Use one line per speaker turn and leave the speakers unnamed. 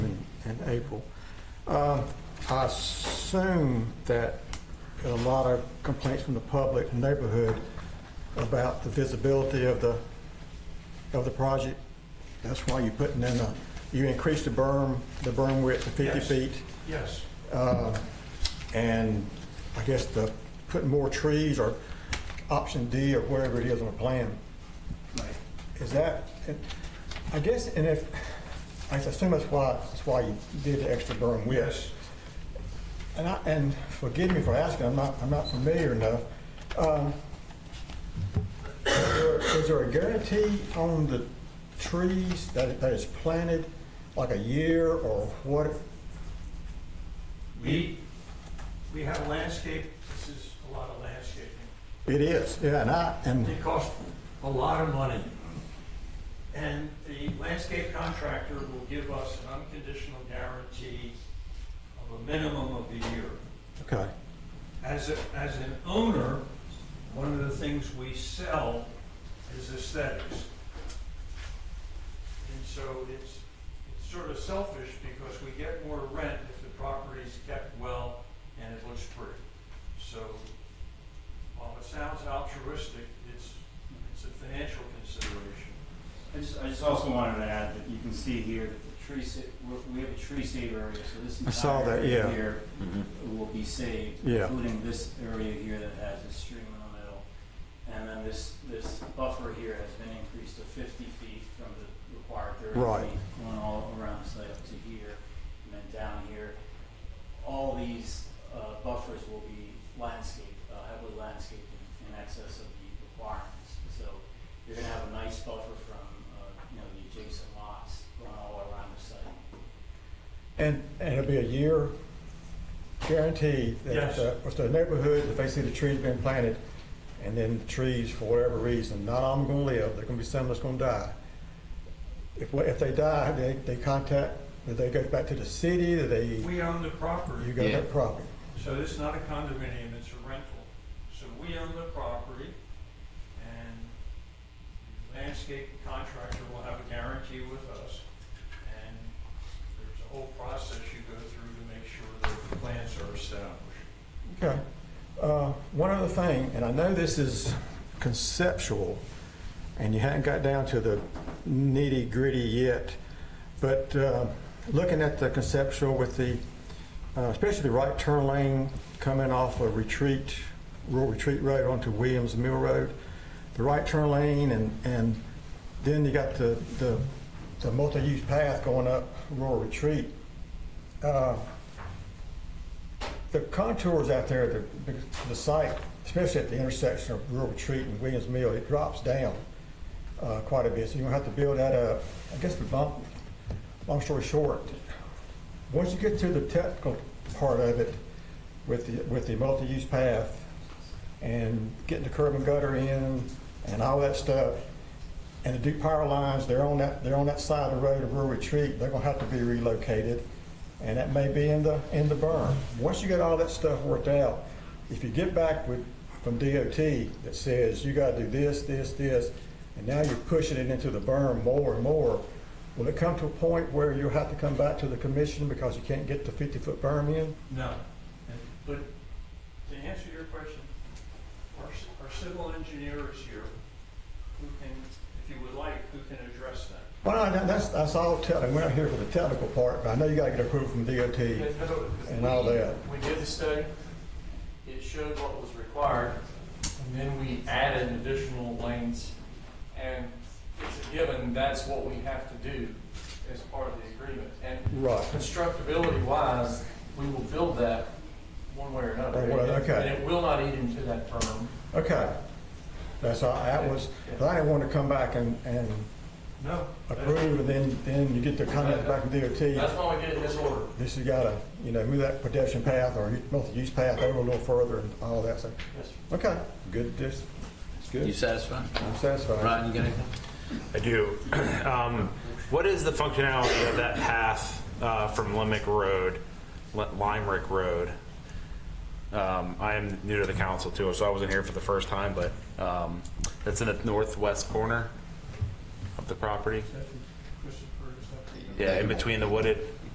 April. Um, I assume that a lot of complaints from the public and neighborhood about the visibility of the, of the project. That's why you're putting in a, you increase the berm, the berm width to 50
Yes.
feet.
Yes.
Uh, And I guess the, putting more trees or option D or wherever it is on the plan. Is that, and I guess, and if, I assume that's why, that's why you did the extra berm width.
Yes.
And I, and forgive me for asking, I'm not, I'm not familiar enough. Um, Is there- is there a guarantee on the trees that, that is planted, like a year or what?
We, we have landscape, this is a lot of landscaping.
It is, yeah, and I, and.
It costs a lot of money. And the landscape contractor will give us an unconditional guarantee of a minimum of a year.
Okay,
As, a- as an owner, one of the things we sell is aesthetics. And so it's, it's sort of selfish because we get more rent if the property's kept well and it looks pretty. So while it sounds altruistic, it's, it's a financial consideration.
I just, I just also wanted to add that you can see here that the tree, sa- we- we have a tree save area, so this
I saw
entire
that,
area
yeah.
here will be saved,
Yeah.
including this area here that has a stream in the middle. And then this, this buffer here has been increased to fifty feet from the required thirty
Right.
feet, going all around the site up to here, and then down here. All these, uh, buffers will be landscaped, uh, heavily landscaped in, in excess of the requirements. So you're gonna have a nice buffer from, uh, you know, the adjacent lots going all around the site.
and, and it'll be a year guaranteed that if the- if the neighborhood, if they see the trees being planted, and then the trees, for whatever reason, not all of them gonna live, there's gonna be some that's gonna die. If, if they die, they, they contact, do they go back to the city, do they, you
We own the property.
got that property?
So this is not a condominium, it's a rental. So we own the property, and the landscape contractor will have a guarantee with us. And there's a whole process you go through to make sure that the plans are established.
Okay. Uh, One other thing, and I know this is conceptual, and you haven't got down to the nitty-gritty yet, but uh, looking at the conceptual with the, uh, especially the right turn lane coming off of Retreat, Rural Retreat Road onto Williams Mill Road, the right turn lane, and, and then you got the, the, the multi-use path going up Rural Retreat. Uh, the contours out there, the, the site, especially at the intersection of Rural Retreat and Williams Mill, it drops down uh, quite a bit. So you're gonna have to build that up. I guess the bump, long story short, once you get to the technical part of it with the, with the multi-use path and getting the curb and gutter in and all that stuff, and the Duke power lines, they're on that, they're on that side of the road of Rural Retreat, they're gonna have to be relocated, and that may be in the, in the burn. Once you get all that stuff worked out, if you get back with, from DOT that says, you gotta do this, this, this, and now you're pushing it into the burn more and more, will it come to a point where you'll have to come back to the commission because you can't get the fifty-foot berm in?
No. But to answer your question, our, our civil engineer is here, who can, if you would like, who can address that.
Well, no, that's, that's all technical, we're not here for the technical part, but I know you gotta get approval from DOT and all that.
We did the study, it showed what was required, and then we added additional lanes. And it's a given, that's what we have to do as part of the agreement. And
Right.
constructability wise, we will build that one way or another.
Or what, okay.
And it will not eat into that berm.
Okay. That's all, that was, but I didn't want to come back and, and
No.
approve, and then, then you get the comment back from
That's
DOT.
why we did it in this order.
This has got to, you know, move that pedestrian path or multi-use path over a little further and all that, so,
Yes, sir.
okay, good, just, it's
You
good,
satisfied?
I'm satisfied.
Ryan, you got anything?
I do. um, what is the functionality of that path uh, from Limerick Road, Li- Limerick Road? Um, I am new to the council too, so I wasn't here for the first time, but um, that's in the northwest corner of the property.
Christopher, is that-
Yeah, in between the wooded